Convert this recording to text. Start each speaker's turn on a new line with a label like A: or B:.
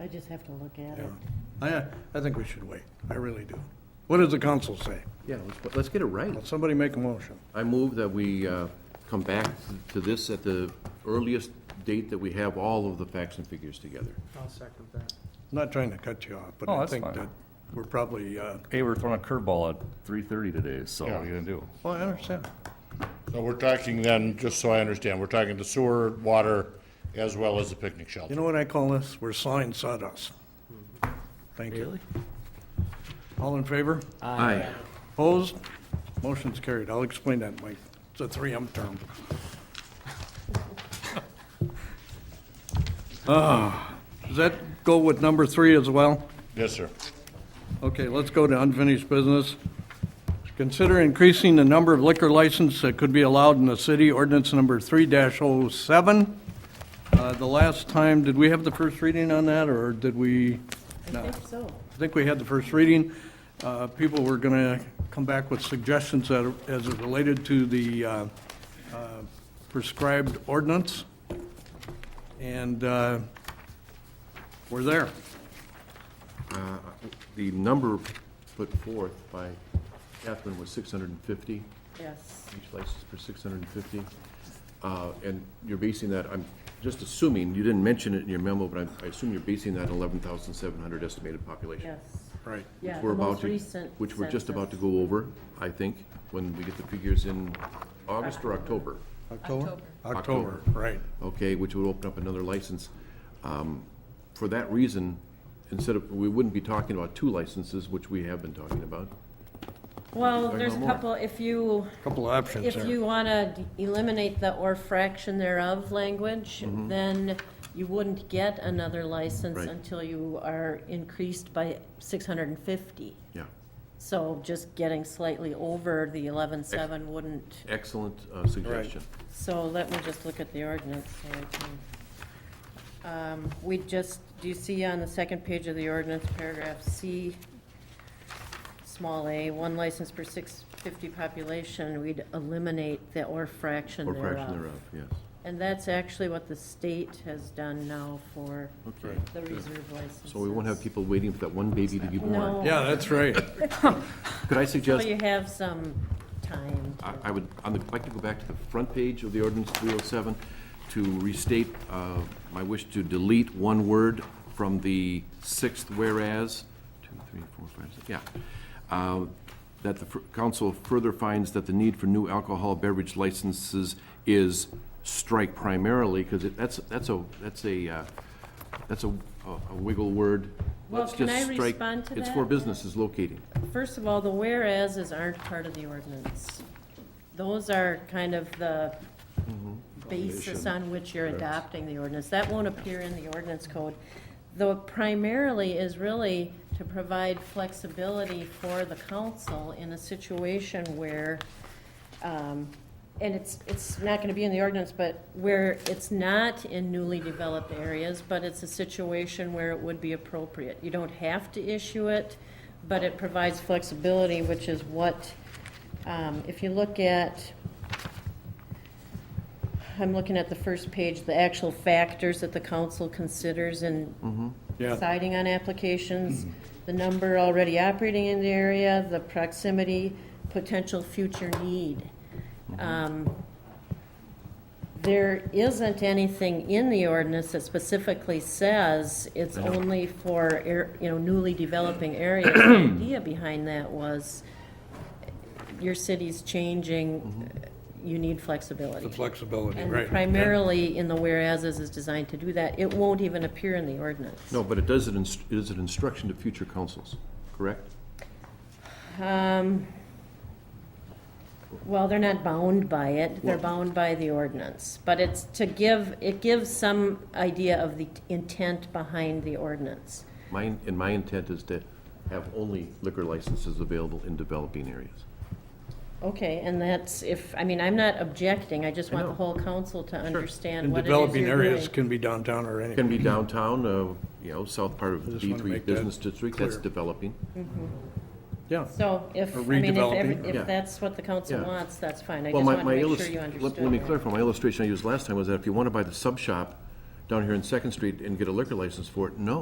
A: I just have to look at
B: Yeah.
A: it.
B: I, uh, I think we should wait. I really do. What does the council say?
C: Yeah, let's, let's get it right.
B: Will somebody make a motion?
C: I move that we uh, come back to this at the earliest date that we have all of the facts and figures together.
D: I'll second that.
B: I'm Not trying to cut you off, but
E: Oh,
B: I
E: that's
B: think
E: fine.
B: that we're probably, uh,
E: Hey, we're throwing a curveball at three thirty today, so what are you gonna do?
B: well, I understand.
F: So we're talking then, just so I understand, we're talking the sewer, water, as well as the picnic
B: You
F: shelter.
B: know what I call this? We're sawing sawdust. Thank you. All in favor?
C: Aye.
B: Opposed? Motion's carried. I'll explain that, Mike. It's a 3M term. Ah, Does that go with number three as well?
F: Yes, sir.
B: Okay, let's go to unfinished business. Consider increasing the number of liquor licenses that could be allowed in the city, ordinance number three 7 Uh, the last time, did we have the first reading on that, or did we?
A: I think so.
B: I think we had the first reading. Uh, People were going to come back with suggestions that, are- as it related to the uh, uh, prescribed ordinance. And uh, we're there.
C: The number put forth by Catherine was six hundred and fifty,
A: Yes.
C: each license for six hundred and fifty. Uh, And you're basing that, I'm just assuming, you didn't mention it in your memo, but I- I assume you're basing that on eleven thousand seven hundred estimated population.
A: Yes.
B: Right.
A: Yeah,
C: we're
A: the
C: about
A: most
C: to-
A: recent
C: Which we're just about to
A: census.
C: go over, I think, when we get the figures in August or October.
B: October? October, right.
C: okay, which would open up another license. Um, For that reason, instead of, we wouldn't be talking about two licenses, which we have been talking about.
A: Well,
C: Talking
A: there's
C: about
A: a
C: more.
A: couple, if you,
B: Couple of options
A: if
B: there.
A: you want to eliminate the or fraction thereof language, then you wouldn't get another license
C: Mm-hmm. Right.
A: until you are increased by 650.
C: Yeah.
A: So just getting slightly over the 11.7 wouldn't,
C: Excellent uh, suggestion.
A: so let me just look at the ordinance. so I can- Um, We just, do you see on the second page of the ordinance, paragraph C, small a, one license per 650 population, we'd eliminate the or fraction
C: Or
A: thereof.
C: fraction thereof, yes.
A: And that's actually what the state has done now for
C: Okay.
A: the reserve licenses.
C: So we won't have people waiting for that one baby to be born.
A: No.
B: Yeah, that's right.
C: Could I
A: So
C: suggest,
A: you have some time. to-
C: I I would, I'd like to go back to the front page of the ordinance 307 to restate uh, my wish to delete one word from the sixth whereas, two, three, four, five, six, yeah. Uh, That the fr- council further finds that the need for new alcohol beverage licenses is strike primarily, because that's, that's a, that's a, uh, that's a a wiggle word.
A: Well,
C: Let's
A: can
C: just
A: I
C: strike-
A: respond to
C: It's
A: that?
C: for businesses locating.
A: First of all, the whereases aren't part of the ordinance. Those are kind of the basis on which you're adopting the ordinance. That won't appear in the ordinance code. Though primarily is really to provide flexibility for the council in a situation where, um, and it's, it's not gonna be in the ordinance, but where it's not in newly developed areas, but it's a situation where it would be appropriate. You don't have to issue it, but it provides flexibility, which is what, um, if you look at, I'm looking at the first page, the actual factors that the council considers in
B: Yeah.
A: deciding on applications, the number already operating in the area, the proximity, potential future need. Um, There isn't anything in the ordinance that specifically says it's only for, air- you know, newly developing areas. The idea behind that was your city's changing, you need flexibility.
B: The flexibility,
A: And
B: right.
A: primarily in the whereases is designed to do that. It won't even appear in the ordinance.
C: No, but it does, it inst- it is an instruction to future councils, correct?
A: Um, Well, they're not bound by it, they're bound by the ordinance, but it's to give, it gives some idea of the intent behind the ordinance.
C: My, and my intent is to have only liquor licenses available in developing areas.
A: Okay, and that's if, I mean, I'm not objecting, I just want the
C: know.
A: whole council to understand
B: And
A: what it is
B: developing
A: you're
B: areas
A: doing.
B: can be downtown or
C: Can
B: anywhere.
C: be downtown, uh, you know, south part of the
B: just wanna
C: B3
B: make that
C: Business District, that's
B: clear.
C: developing.
B: Yeah.
A: So if, I
B: Or
A: mean, if,
B: redeveloping.
A: every-
C: Yeah.
A: if that's what the council
C: Yeah.
A: wants, that's fine, I
C: Well,
A: just
C: my-
A: want to
C: my
A: make
C: illus-
A: sure you
C: let-
A: understood.
C: Let me
A: that.
C: clarify, my illustration I used last time was that if you want to buy the sub shop down here in Second Street and get a liquor license for it, no,